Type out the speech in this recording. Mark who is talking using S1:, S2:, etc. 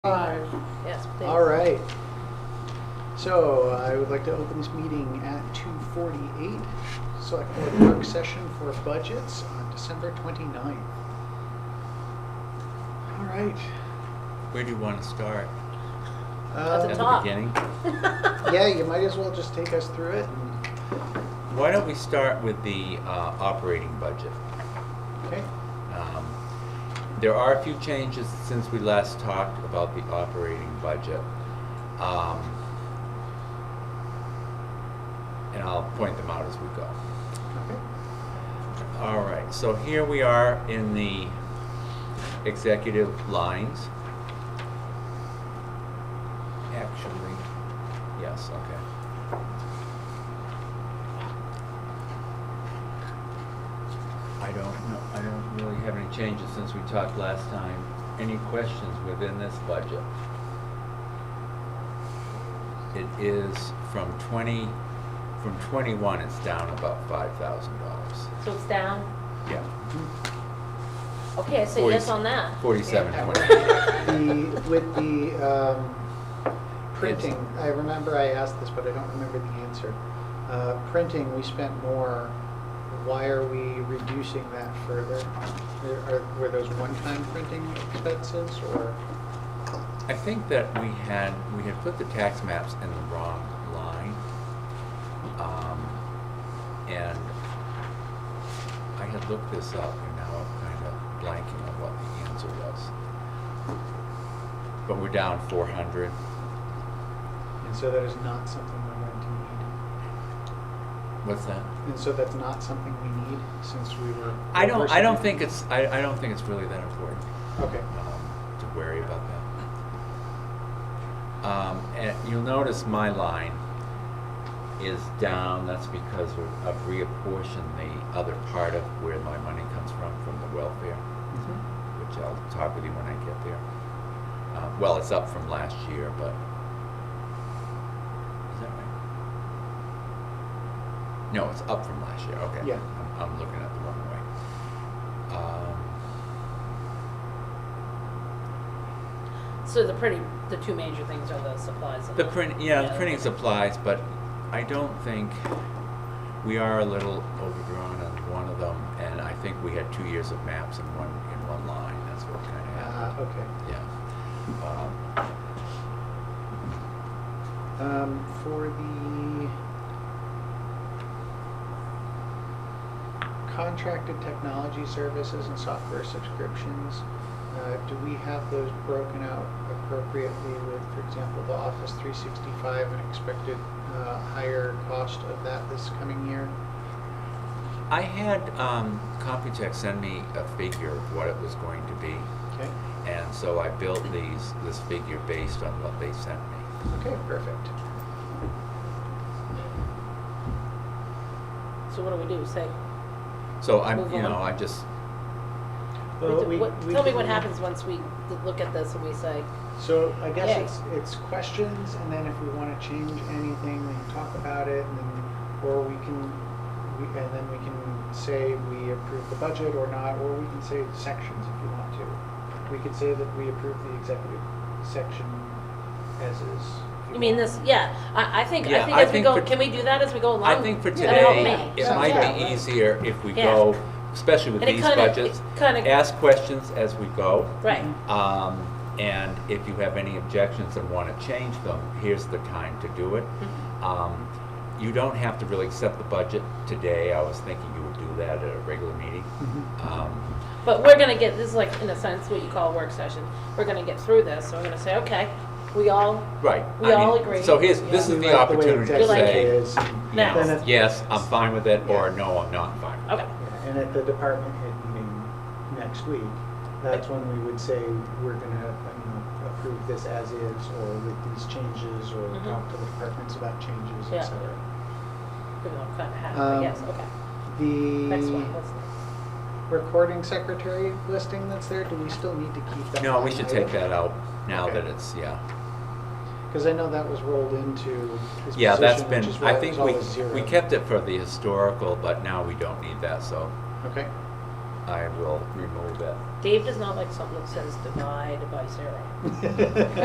S1: Five.
S2: Yes, please.
S1: All right. So I would like to open this meeting at 2:48, Select Board Work Session for Budgets on December 29th. All right.
S3: Where do you want to start?
S2: At the
S1: Um,
S2: top.
S3: beginning?
S1: Yeah, you might as well just take us through it. and-
S3: Why don't we start with the uh, operating budget?
S1: Okay,
S3: Um, There are a few changes since we last talked about the operating budget. Um, And I'll point them out as we go.
S1: okay.
S3: All right, so here we are in the executive lines. Actually. Yes, okay. I don't know, I don't really have any changes since we talked last time. Any questions within this budget? It is from twenty, from twenty-one, it's down about five thousand dollars.
S2: So it's down?
S3: Yeah.
S2: Okay, I say
S3: Forty-
S2: yes on that.
S3: Forty-seven
S1: Yeah.
S3: twenty-eight.
S1: The, with the um, printing, I remember I asked this, but I don't remember the answer. Uh, Printing, we spent more. Why are we reducing that further? There are- Were those one-time printing expenses or?
S3: I think that we had, we had put the tax maps in the wrong line. Um, And I had looked this up and now I'm kind of blanking on what the answer was. But we're down four hundred.
S1: And so that is not something we're going to
S3: What's that?
S1: need. And so that's not something we need since we were.
S3: I don't, I don't think it's, I, I don't think it's really that important.
S1: Okay.
S3: um, to worry about that. Um, and you'll notice my line is down, that's because of- I've reapportioned the other part of where my money comes from, from the welfare,
S1: Mhm.
S3: which I'll talk with you when I get there. Uh, well, it's up from last year, but, is that right? No, it's up from last year, okay.
S1: Yeah.
S3: I'm, I'm looking at the wrong way. Um,
S2: So the pretty, the two major things are the supplies and.
S3: The print, yeah, the printing supplies, but I don't think, we are a little overdrawn on one of them, and I think we had two years of maps in one, in one line, that's what kind of
S1: Ah,
S3: happened.
S1: Okay.
S2: Uh-huh.
S3: Yeah. Um,
S1: Um, for the contracted technology services and software subscriptions, uh, do we have those broken out appropriately with, for example, the Office 365 and expected uh, higher cost of that this coming year?
S3: I had, um, Computech send me a figure of what it was going to be,
S1: Okay,
S3: and so I built these, this figure based on what they sent me.
S1: okay, perfect.
S2: So what do we do, say?
S3: So I'm,
S2: Move
S3: you
S2: on.
S3: know, I just,
S1: Well,
S2: what-
S1: we-
S2: what-
S1: we
S2: Tell me
S1: can-
S2: what happens once we look at this and we say,
S1: So I guess
S2: Yay.
S1: it's, it's questions, and then if we want to change anything, we can talk about it, and then, or we can, we, and then we can say we approve the budget or not, or we can say sections if you want to. We could say that we approve the executive section as is. if
S2: you mean
S1: want.
S2: this, yeah, I, I think, I
S3: Yeah,
S2: think
S3: I
S2: as we
S3: think
S2: go,
S3: for-
S2: can we do that as we go along?
S3: I think for
S2: That'll help
S3: today,
S2: me.
S3: it
S1: Yeah.
S3: might
S1: Yeah.
S3: be easier if we
S2: Yeah.
S3: go, especially with
S2: And it
S3: these
S2: kinda- it
S3: budgets,
S2: kinda-
S3: ask questions as we go.
S2: Right,
S3: Um, and if you have any objections and want to change them, here's the time to do it. Um, you don't have to really accept the budget today. I was thinking you would do that at a regular meeting.
S1: Mhm.
S3: Um,
S2: but we're gonna get, this is like, in a sense, what you call a work session, we're gonna get through this, so we're gonna say, okay, we all,
S3: Right.
S2: We
S3: I mean,
S2: all agree.
S3: So here's,
S2: Yeah.
S3: this
S1: We
S3: is the
S1: like way
S3: opportunity to
S1: executive
S2: Like it.
S3: say,
S1: is, and
S2: Now.
S1: then at-
S3: yes, I'm fine with it, or
S1: Yeah.
S3: no, I'm not fine with it.
S2: okay,
S1: Yeah, And at the department head meeting next week, that's when we would say, we're gonna, you know, approve this as is, or with these changes, or
S2: Mhm.
S1: talk to the departments about changes,
S2: Yeah.
S1: et cetera.
S2: we all kind of have,
S1: Um,
S2: I guess, okay, next one,
S1: The
S2: what's next?
S1: recording secretary listing that's there, do we still need to keep that?
S3: No, we should take that out now
S1: Okay.
S3: that it's, yeah.
S1: Because I know that was rolled into his
S3: Yeah, that's
S1: position,
S3: been,
S1: which is why
S3: I
S1: it
S3: think
S1: was always
S3: we,
S1: zero.
S3: we kept it for the historical, but now we don't need that, so.
S1: Okay,
S3: um, I will remove it.
S2: Dave does not like something that says divide by zero.